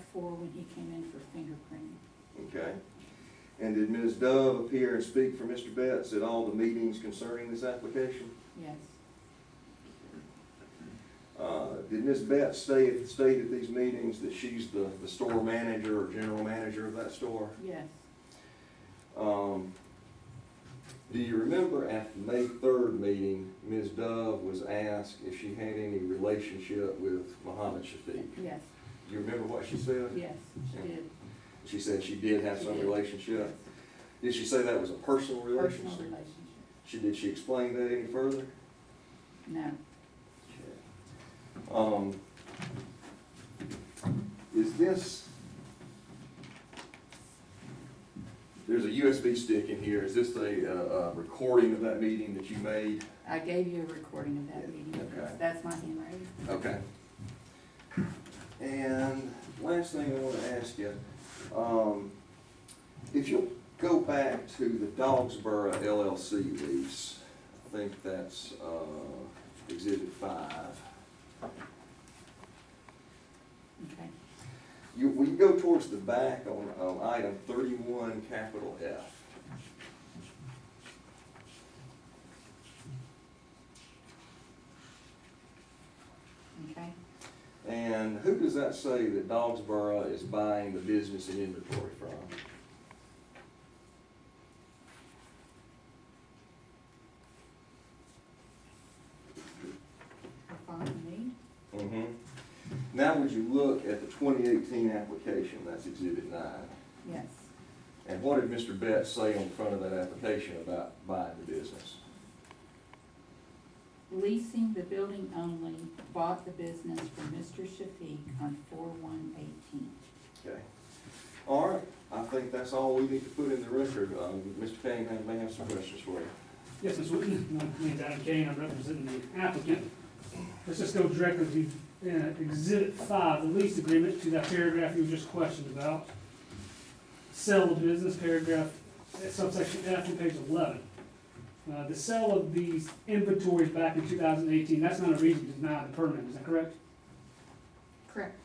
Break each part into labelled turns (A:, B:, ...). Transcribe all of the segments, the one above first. A: before when he came in for fingerprinting.
B: Okay. And did Ms. Dove appear and speak for Mr. Betts at all the meetings concerning this application?
A: Yes,
B: Uh, Did Ms. Betts stay, state at these meetings that she's the, the store manager or general manager of that store?
A: yes,
B: Um, Do you remember at the May third meeting, Ms. Dove was asked if she had any relationship with Muhammad Shafiq?
A: yes,
B: Do you remember what she said?
A: yes, she did.
B: She said she did have some
A: She did.
B: relationship. Did she say that was a personal
A: Personal
B: relationship?
A: relationship.
B: She, did she explain that any further?
A: No,
B: Um, Is this, there's a USB stick in here, is this a, uh, uh, recording of that meeting that you made?
A: I gave you a recording of that meeting.
B: Okay.
A: That's my handwriting.
B: Okay. And last thing I want to ask you, um, if you'll go back to the Dogsboro LLC lease, I think that's, uh, exhibit five.
A: Okay,
B: You, when you go towards the back on, on item thirty-one, capital F.
A: okay.
B: And who does that say that Dogsboro is buying the business and inventory from?
A: We're following me.
B: Mm-hmm. Now, would you look at the twenty eighteen application, that's exhibit nine,
A: Yes,
B: and what did Mr. Betts say on the front of that application about buying the business?
A: leasing the building only, bought the business from Mr. Shafiq on four one eighteen.
B: Okay. All right, I think that's all we need to put in the record, um, Mr. Cunningham may have some questions for you.
C: Yes, Ms. Whitten, my name's Adam Kane, I'm representing the applicant. Let's just go directly to uh, Exhibit 5, the lease agreement, to that paragraph you just questioned about. Sell the business, paragraph, uh, subsection F on page 11. Uh, The sale of these inventories back in 2018, that's not a reason to deny the permit, is that correct?
A: Correct.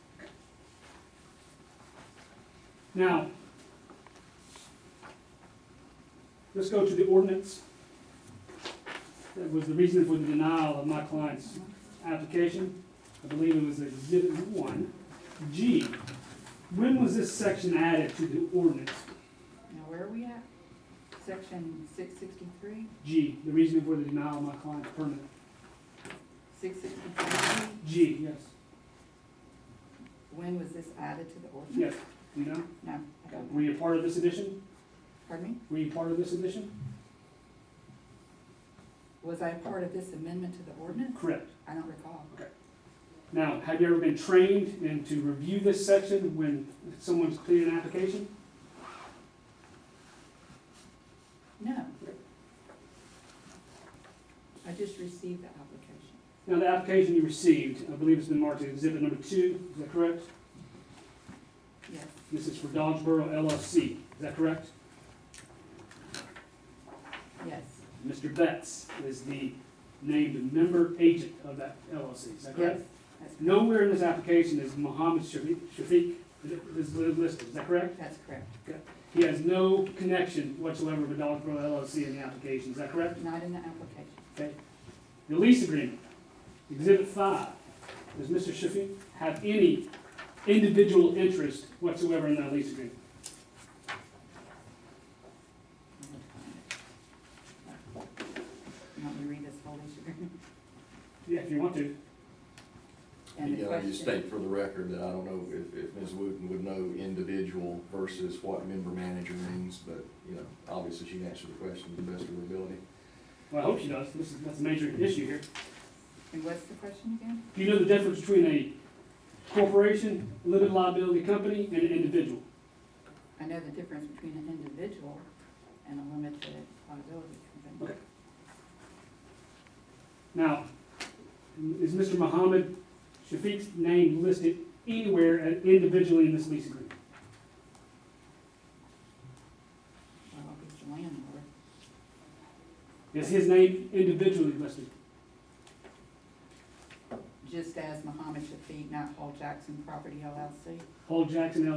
C: Now, let's go to the ordinance. That was the reason for the denial of my client's
A: Uh-huh.
C: application, I believe it was exhibit one. G, when was this section added to the ordinance?
A: Now, where are we at? Section six sixty-three,
C: G, the reason for the denial of my client's permit.
A: six sixty-three,
C: G, yes,
A: when was this added to the ordinance?
C: yes, you know,
A: No, I don't
C: were
A: know.
C: you a part of this edition?
A: Pardon me?
C: Were you part of this edition?
A: Was I a part of this amendment to the ordinance?
C: Correct.
A: I don't recall.
C: Now, have you ever been trained and to review this section when someone's completed an application?
A: No. I just received the application.
C: Now, the application you received, I believe it's been marked as exhibit number two, is that correct?
A: Yes,
C: This is for Dodgeboro LLC, is that correct?
A: yes,
C: Mr. Betts is the named member agent of that LLC, is that
A: yes.
C: correct?
A: That's correct.
C: Nowhere in this application is Mohammed Shafiq, Shafiq is listed, is that correct?
A: That's correct.
C: He has no connection whatsoever with Dodgeboro LLC in the application, is that correct?
A: Not in the application.
C: The lease agreement, exhibit five, does Mr. Shafiq have any individual interest whatsoever in that lease agreement?
A: You want me to read this whole lease agreement?
C: Yeah, if you want to.
A: And the
B: Yeah, I just
A: question,
B: state for the record that I don't know if, if Ms. Wooten would know individual versus what member manager means, but, you know, obviously she can answer the question to the best of her ability.
C: Well, I hope she does, this is, that's a major issue here.
A: and what's the question again?
C: Do you know the difference between a corporation, limited liability company, and an individual?
A: I know the difference between an individual and a limited liability company.
C: Now, is Mr. Muhammad Shafiq's name listed anywhere as- individually in this lease agreement?
A: Well, if it's a landlord,
C: Is his name individually listed?
A: just as Muhammad Shafiq, not Paul Jackson Property LLC?
C: Paul Jackson